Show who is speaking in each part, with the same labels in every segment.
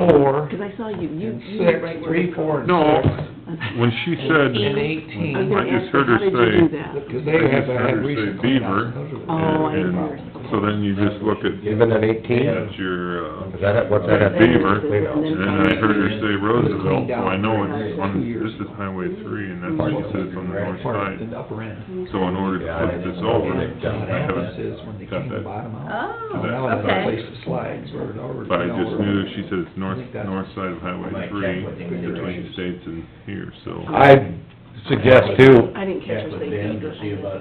Speaker 1: four,
Speaker 2: Because I saw you, you,
Speaker 1: and
Speaker 2: you
Speaker 1: six,
Speaker 2: were right where.
Speaker 1: three, four, and
Speaker 3: No,
Speaker 1: six.
Speaker 3: when she said,
Speaker 1: And
Speaker 2: I was
Speaker 1: eighteen,
Speaker 2: gonna
Speaker 3: I just
Speaker 2: ask
Speaker 3: heard
Speaker 2: you,
Speaker 3: her
Speaker 2: How did you
Speaker 3: say-
Speaker 2: do that?
Speaker 1: because they have
Speaker 3: I just
Speaker 1: had
Speaker 3: heard her
Speaker 1: recent.
Speaker 3: say beaver,
Speaker 2: Oh, I
Speaker 3: and-
Speaker 2: understand.
Speaker 3: so then you just look at,
Speaker 4: Even at eighteen?
Speaker 3: at your, uh,
Speaker 4: Is that, it? what's that at?
Speaker 3: Beaver.
Speaker 2: And
Speaker 3: and then I heard her say Roosevelt, so I know it's on, this is Highway three, and that's where she says on the north
Speaker 1: Part of
Speaker 3: side.
Speaker 1: the upper end.
Speaker 3: So in order to put this over,
Speaker 1: What
Speaker 3: I
Speaker 1: happens
Speaker 3: haven't
Speaker 1: is when they
Speaker 3: got
Speaker 1: came the
Speaker 3: that,
Speaker 1: bottom out,
Speaker 5: Oh,
Speaker 1: so now it's a place
Speaker 5: okay.
Speaker 1: to slide, so it already.
Speaker 3: but I just knew, she said it's north, north side of Highway three, between the states and here, so.
Speaker 4: I suggest too,
Speaker 2: I didn't catch her say beaver.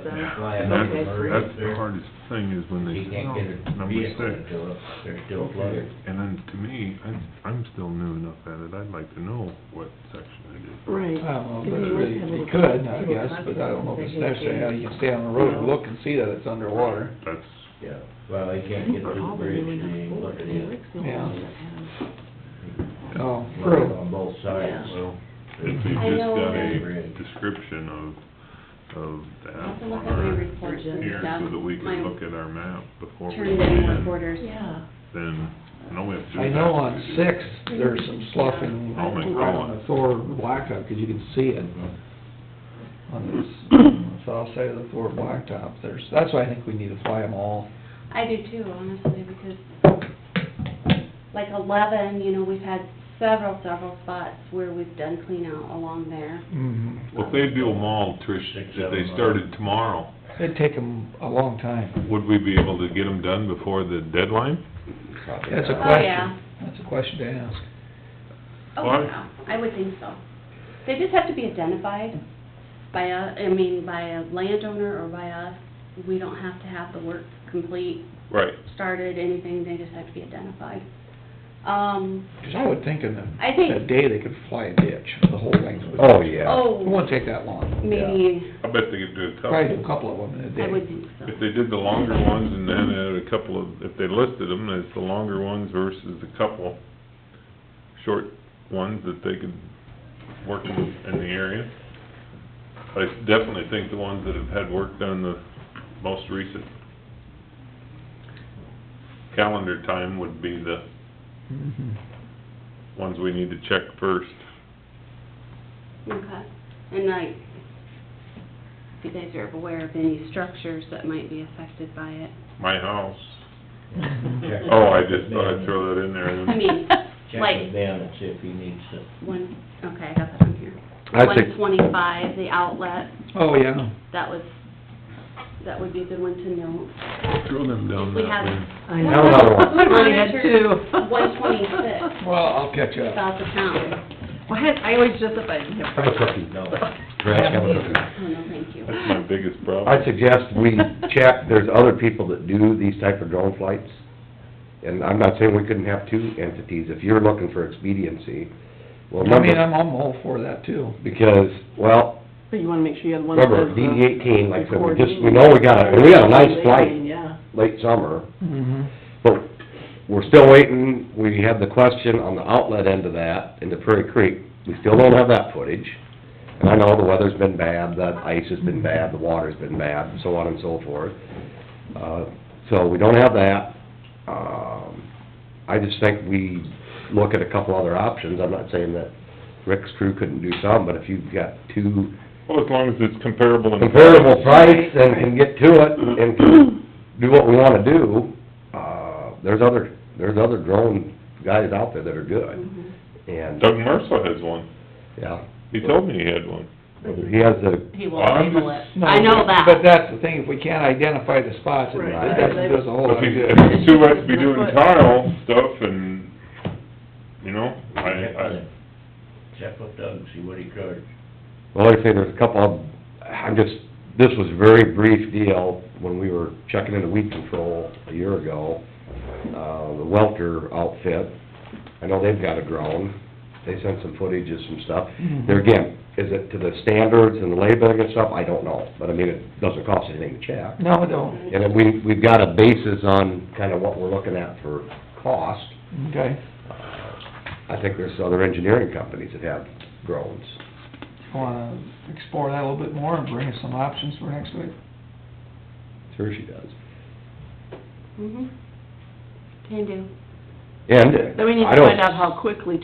Speaker 3: And that's, that's the
Speaker 2: Okay.
Speaker 3: hardest thing is when they,
Speaker 6: He can't get a
Speaker 3: number
Speaker 6: vehicle
Speaker 3: six.
Speaker 6: until, they're still flooded.
Speaker 3: And then to me, I'm, I'm still new enough at it, I'd like to know what section it is.
Speaker 1: I
Speaker 2: Right.
Speaker 1: don't know, they, they could, I guess, but I don't know if it's necessary, how you can stay on the road and look and see that it's underwater.
Speaker 3: That's,
Speaker 6: Yeah, well, he can't
Speaker 2: We
Speaker 6: get
Speaker 2: were
Speaker 6: through the
Speaker 2: all
Speaker 6: bridge,
Speaker 2: really
Speaker 6: and he
Speaker 2: nice
Speaker 6: ain't
Speaker 2: boats, and
Speaker 6: looking in.
Speaker 2: Rick's the only
Speaker 1: Yeah.
Speaker 2: one that
Speaker 1: Oh,
Speaker 6: Flooded
Speaker 1: true.
Speaker 6: on both sides.
Speaker 3: well, if you just got a description of, of that
Speaker 7: I'll have to look
Speaker 3: on
Speaker 7: at my
Speaker 3: our,
Speaker 7: reports and
Speaker 3: here,
Speaker 7: stuff.
Speaker 3: so that we can
Speaker 7: My
Speaker 3: look at our map before we
Speaker 7: Turned in
Speaker 3: begin,
Speaker 7: reporters.
Speaker 2: had- Yeah.
Speaker 3: then, no, we have to do that.
Speaker 1: I know on six, there's some sloughing
Speaker 3: I'll make
Speaker 1: right on
Speaker 3: one. Mm-hmm.
Speaker 1: the Thor blacktop, 'cause you can see it on this, uh, on the south side of the Thor blacktop, there's, that's why I think we need to fly them all.
Speaker 7: I do too, honestly, because like eleven, you know, we've had several, several spots where we've done clean out along there.
Speaker 1: Mm-hmm.
Speaker 3: Well, if they do them all, Trish,
Speaker 6: Six,
Speaker 3: if they
Speaker 6: seven,
Speaker 3: started tomorrow,
Speaker 1: It'd take them a long time,
Speaker 3: would we be able to get them done before the deadline?
Speaker 1: that's a
Speaker 3: uh,
Speaker 7: Oh, yeah.
Speaker 1: question, that's a question to ask.
Speaker 7: Oh,
Speaker 3: Well, I-
Speaker 7: yeah, I would think so. They just have to be identified by a, I mean, by a landowner or by us. We don't have to have the work complete,
Speaker 3: Right.
Speaker 7: started, anything, they just have to be identified. Um,
Speaker 1: 'Cause I would think in the,
Speaker 7: I think-
Speaker 1: in a day, they could fly a ditch, the whole length. of it.
Speaker 4: oh, yeah.
Speaker 1: It
Speaker 7: oh,
Speaker 1: won't take that long,
Speaker 7: maybe,
Speaker 3: I bet they could do a
Speaker 1: probably
Speaker 3: couple.
Speaker 1: do a couple of them in a
Speaker 7: I would
Speaker 1: day.
Speaker 7: think so.
Speaker 3: If they did the longer ones and then added a couple of, if they listed them as the longer ones versus the couple short ones that they could work in, in the area. I definitely think the ones that have had work done the most recent calendar time would be the
Speaker 1: Mhm.
Speaker 3: ones we need to check first.
Speaker 7: Okay, and like, if you guys are aware of any structures that might be affected by it,
Speaker 3: My house.
Speaker 6: Check-
Speaker 3: Oh, I just thought I'd throw that in there and
Speaker 7: I mean,
Speaker 6: Check
Speaker 7: like-
Speaker 6: with Ben and see if he needs to.
Speaker 7: one, okay, I got that on here.
Speaker 4: I think,
Speaker 7: One twenty-five, the outlet,
Speaker 1: Oh, yeah.
Speaker 7: that was, that would be a good one to note.
Speaker 3: throw them down
Speaker 7: We
Speaker 3: that
Speaker 7: have-
Speaker 3: way.
Speaker 2: I
Speaker 4: know. Another one.
Speaker 2: I already had two.
Speaker 7: One twenty-six,
Speaker 1: Well, I'll catch up.
Speaker 7: south of town.
Speaker 2: Well, I had- I always justify it.
Speaker 4: have a cookie.
Speaker 6: No.
Speaker 4: Grant, have a cookie.
Speaker 7: Oh, no, thank you.
Speaker 3: That's my biggest problem.
Speaker 4: I suggest we check, there's other people that do these type of drone flights, and I'm not saying we couldn't have two entities, if you're looking for expediency, well,
Speaker 1: I mean,
Speaker 4: remember,
Speaker 1: I'm, I'm all for that too.
Speaker 4: because, well,
Speaker 2: But you wanna make sure you have one uh, that
Speaker 4: remember,
Speaker 2: does the.
Speaker 4: DD eighteen, like, I said, we just, we
Speaker 2: recording.
Speaker 4: know we got a, we got a nice flight
Speaker 2: Yeah.
Speaker 4: late summer,
Speaker 1: Mm-hmm.
Speaker 4: but we're still waiting, we had the question on the outlet end of that, in the Prairie Creek, we still don't have that footage. And I know the weather's been bad, the ice has been bad, the water's been bad, and so on and so forth. Uh, so we don't have that. Um, I just think we look at a couple other options, I'm not saying that Rick's crew couldn't do some, but if you've got two
Speaker 3: Well, as long as it's comparable and.
Speaker 4: comparable price and can get to it and can do what we wanna do, uh, there's other, there's other drone guys out there that are good.
Speaker 7: Mhm.
Speaker 4: And,
Speaker 3: Doug Marshall has one.
Speaker 4: yeah,
Speaker 3: He told me he had one.
Speaker 4: he has the,
Speaker 2: He will
Speaker 3: Well, I'm
Speaker 2: label it.
Speaker 3: just-
Speaker 2: I know that.
Speaker 1: But that's the thing, if we can't identify the spots, it
Speaker 2: Right.
Speaker 1: doesn't do us a whole lot
Speaker 3: If
Speaker 1: of
Speaker 3: he's,
Speaker 1: good.
Speaker 3: if he's too much to be doing tile stuff and, you know, I,
Speaker 6: Check
Speaker 3: I,
Speaker 6: with- Check with Doug, see what he charged.
Speaker 4: well, like I say, there's a couple of, I'm just, this was a very brief deal when we were checking into weed control a year ago. Uh, the Welter outfit, I know they've got a drone, they sent some footage of some stuff. There again, is it to the standards and the labeling and stuff? I don't know, but I mean, it doesn't cost anything to check.
Speaker 1: No, don't,
Speaker 4: And then we, we've got a basis on kind of what we're looking at for cost.
Speaker 1: okay.
Speaker 4: I think there's other engineering companies that have drones.
Speaker 1: Wanna explore that a little bit more and bring us some options for next week?
Speaker 4: Sure she does.
Speaker 7: Mhm. Mm-hmm. Can do.
Speaker 4: And
Speaker 2: Then we need
Speaker 4: I
Speaker 2: to
Speaker 4: don't
Speaker 2: find out how quickly